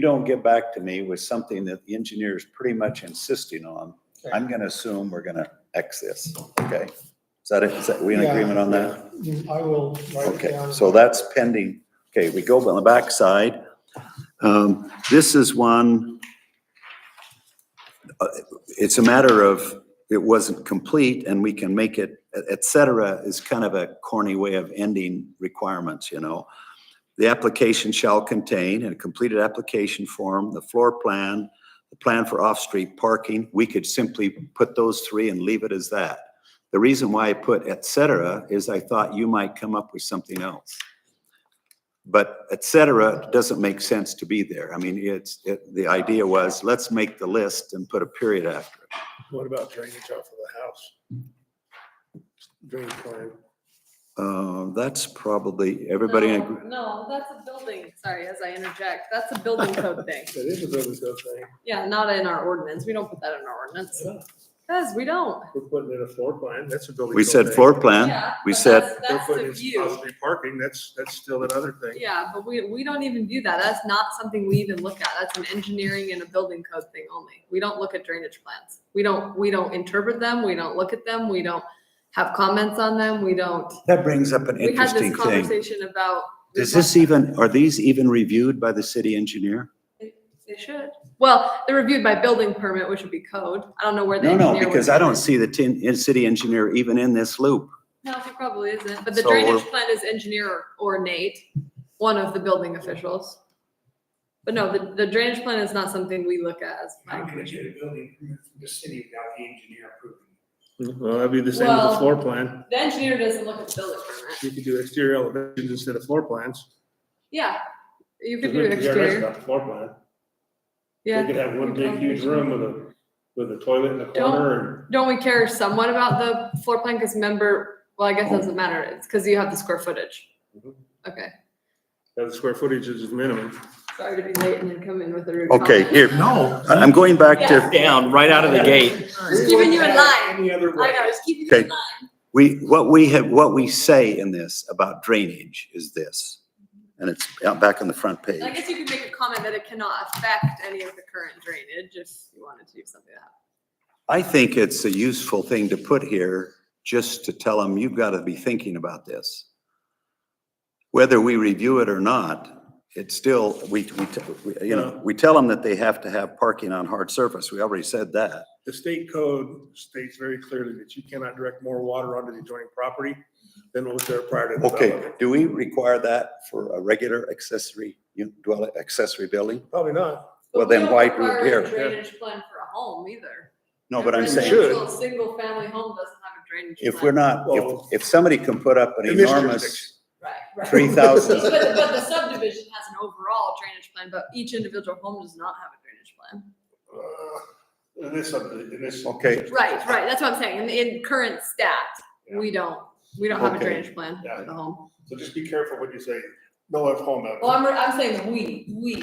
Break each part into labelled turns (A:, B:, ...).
A: you don't get back to me with something that the engineer is pretty much insisting on, I'm gonna assume we're gonna X this, okay? Is that it? Is that, we in
B: Yeah.
A: agreement on that?
B: I will write it
A: Okay,
B: down.
A: so that's pending. Okay, we go on the backside. Um, this is one, uh, it's a matter of, it wasn't complete and we can make it, et- et cetera, is kind of a corny way of ending requirements, you know? The application shall contain in a completed application form, the floor plan, the plan for off-street parking. We could simply put those three and leave it as that. The reason why I put et cetera is I thought you might come up with something else. But et cetera doesn't make sense to be there. I mean, it's, it, the idea was, let's make the list and put a period after it.
B: What about drainage off of the house? Drainage plan.
A: Uh, that's probably, everybody, in
C: No,
A: agree-
C: No, that's a building, sorry, as I interject, that's a building code thing.
B: That is a building code thing.
C: Yeah, not in our ordinance, we don't put that in our ordinance,
B: Yeah,
C: because we don't.
B: We're putting in a floor plan, that's a building.
A: we
B: code
A: said
B: thing.
A: floor plan,
C: Yeah,
A: we
C: but
A: said-
C: that's-
B: We're
C: That's
B: putting
C: the
B: in
C: view,
B: off-street Parking, that's, that's still another thing.
C: yeah, but we, we don't even view that, that's not something we even look at, that's an engineering and a building code thing only. We don't look at drainage plans, we don't, we don't interpret them, we don't look at them, we don't have comments on them, we don't.
A: that brings up an
C: We had
A: interesting
C: this
A: thing.
C: conversation about.
A: Does this even, are these even reviewed by the city engineer?
C: They should, well, they're reviewed by building permit, which would be code, I don't know where the
A: No,
C: engineer
A: no,
C: would.
A: because I
C: be.
A: don't see the tin, in- city engineer even in this loop.
C: No, he probably isn't, but the
A: So
C: drainage
A: we're-
C: plan is engineer or Nate, one of the building officials. But no, the, the drainage plan is not something we look at as planning
D: I'm gonna
C: commission.
D: get a building permit from the city without the engineer approving.
B: Well, that'd be the same as a
C: Well-
B: floor plan.
C: The engineer doesn't look at the building permit.
B: You could do exterior elevations instead of floor plans.
C: Yeah, you could do
B: Because we- we already
C: exterior,
B: got the Floor plan. We
C: yeah.
B: could have one big huge room with a, with a toilet in the
C: Don't-
B: corner
C: Don't we care somewhat about the floor plan, cause member, well, I guess it doesn't matter, it's cause you have the square footage.
B: Mhm.
C: Okay,
B: and have the square footage as minimum.
C: sorry to be late and then come in with a rude
A: Okay,
C: comment.
A: here.
E: No.
A: I- I'm going back to.
E: Down, right out of the gate.
C: Just keeping you in line,
D: Any other
C: I
D: way?
C: know, just keeping you in
A: Okay.
C: line.
A: We, what we have, what we say in this about drainage is this, and it's out back on the front
C: And I
A: page.
C: guess you could make a comment that it cannot affect any of the current drainage if you wanted to do something like that.
A: I think it's a useful thing to put here, just to tell them, you've got to be thinking about this. Whether we review it or not, it's still, we, we, t- we- you know, we tell them that they have to have parking on hard surface. We already said that.
B: The state code states very clearly that you cannot direct more water onto the adjoining property than what was there prior to.
A: Okay,
B: development.
A: do we require that for a regular accessory, u- dwell, accessory building?
B: Probably not.
C: But
A: Well,
C: we
A: then
C: don't
A: why do it
C: require a
A: here?
C: Drainage plan for a home either.
A: No, but I'm
B: You
A: saying.
B: should.
C: Single family home doesn't have a drainage.
A: If
C: plan.
A: we're not, if,
B: Well-
A: if somebody can put up an
B: In this
A: enormous
B: jurisdiction.
C: Right, right.
A: three thousand,
C: But, but the subdivision has an overall drainage plan, but each individual home does not have a drainage plan.
B: Uh, In this, subdi- in this.
A: Okay.
C: Right, right, that's what I'm saying, in, in current stat, we don't, we don't have a
A: Okay.
C: drainage plan
B: Yeah.
C: for the home.
B: So just be careful what you say. No F home out.
C: Well, I'm, I'm saying we, we,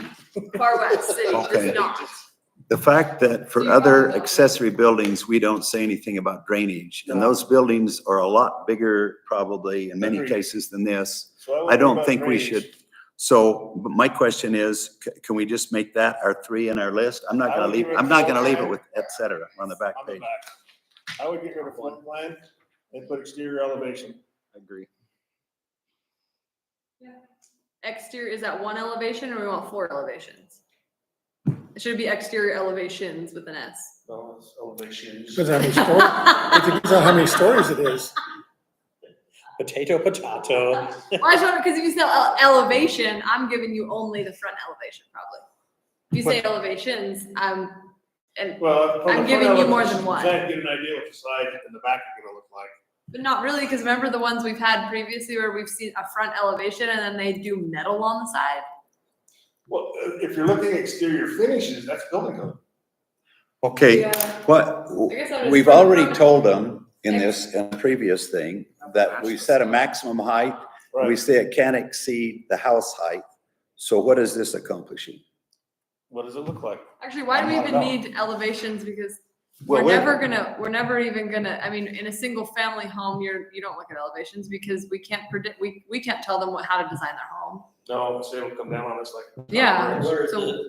C: Far West City
A: Okay.
C: does not.
A: the fact that for
C: You
A: other
C: are-
A: accessory buildings, we don't say anything about drainage. And
B: No.
A: those buildings are a lot bigger probably in many
B: Agreed.
A: cases than this.
B: So would
A: I don't
B: about
A: think we
B: drainage.
A: should. So but my question is, c- can we just make that our three in our list? I'm not
B: I
A: gonna
B: would
A: leave,
B: give it
A: I'm not gonna
B: full
A: leave it
B: time.
A: with et cetera on the back
B: On the
A: page.
B: back. I would get rid of flood plan and put exterior elevation.
A: I agree.
C: Exterior, is that one elevation or we want four elevations? It should be exterior elevations with an S.
D: Well, it's elevations.
F: Depends on how many stories, it depends on how many stories it is.
E: Potato, potato.
C: Well, I just wonder, because if you say ele- elevation, I'm giving you only the front elevation probably. If you say elevations, I'm, and,
B: Well. from
C: I'm
B: the front
C: giving you more
B: elevation,
C: than one.
B: Try and get an idea what the side and the back are gonna look like.
C: but not really, because remember the ones we've had previously where we've seen a front elevation and then they do metal on the side?
B: Well, uh, if you're looking at exterior finishes, that's building code.
A: Okay, what,
C: I guess I was
A: We've
C: trying to
A: already
C: find-
A: told them in this, in the previous thing, that we set a maximum height. We
B: Right.
A: say it can't exceed the house height. So what is this accomplishing?
B: What does it look like?
C: Actually, why do we
B: I'm not
C: even need elevations? Because
A: Well,
C: we're
A: wait-
C: never gonna, we're never even gonna, I mean, in a single family home, you're, you don't look at elevations because we can't predict, we, we can't tell them what, how to design their home.
B: No, so it'll come down on us like.
C: Yeah,
B: Where is
C: so.